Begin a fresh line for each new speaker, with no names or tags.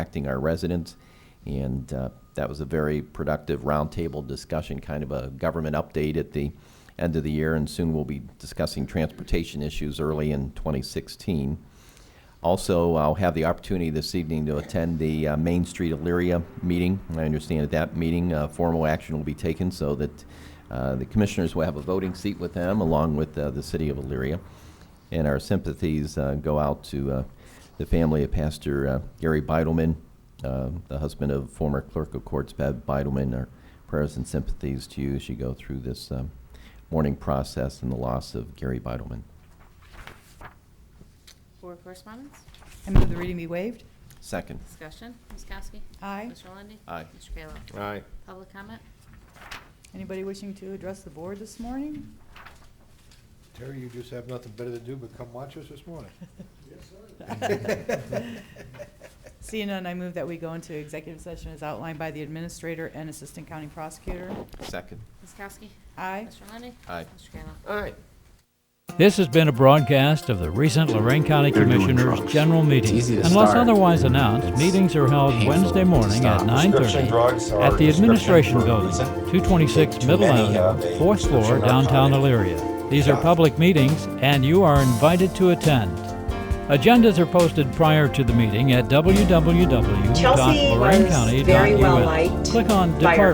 impacting our residents. And uh, that was a very productive roundtable discussion, kind of a government update at the end of the year. And soon we'll be discussing transportation issues early in 2016. Also, I'll have the opportunity this evening to attend the uh, Main Street Elyria meeting. I understand at that meeting, uh, formal action will be taken so that uh, the commissioners will have a voting seat with them, along with uh, the city of Elyria. And our sympathies uh, go out to uh, the family of Pastor uh, Gary Beidelman, uh, the husband of former clerk of courts, Bev Beidelman. Our prayers and sympathies to you as you go through this um, mourning process and the loss of Gary Beidelman.
Board correspondence?
I move the reading be waived.
Second.
Discussion. Ms. Kowski?
Aye.
Mr. Lundey?
Aye.
Mr. Kayla?
Aye.
Public comment?
Anybody wishing to address the board this morning?
Terry, you just have nothing better to do but come watch us this morning.
Seeing none, I move that we go into executive session as outlined by the administrator and assistant county prosecutor.
Second.
Ms. Kowski?
Aye.
Mr. Lundey?
Aye.
Mr. Kayla?
Aye.
This has been a broadcast of the recent Lorraine County
They're doing
Commissioners'
drugs.
General
It's
Meeting.
easy to
Unless
start.
otherwise announced,
It's
meetings are held
painful
Wednesday
to
morning at
stop.
9:30 at the Administration Building, 226
Too
Middle
many of
Avenue, 4th
a
floor,
prescription
downtown
narcotic.
Elyria. These are public meetings, and you are invited to attend. Agendas are posted prior to the meeting at
Chelsea was very well liked
www.lorainecounty.us. Click on
by her
Department.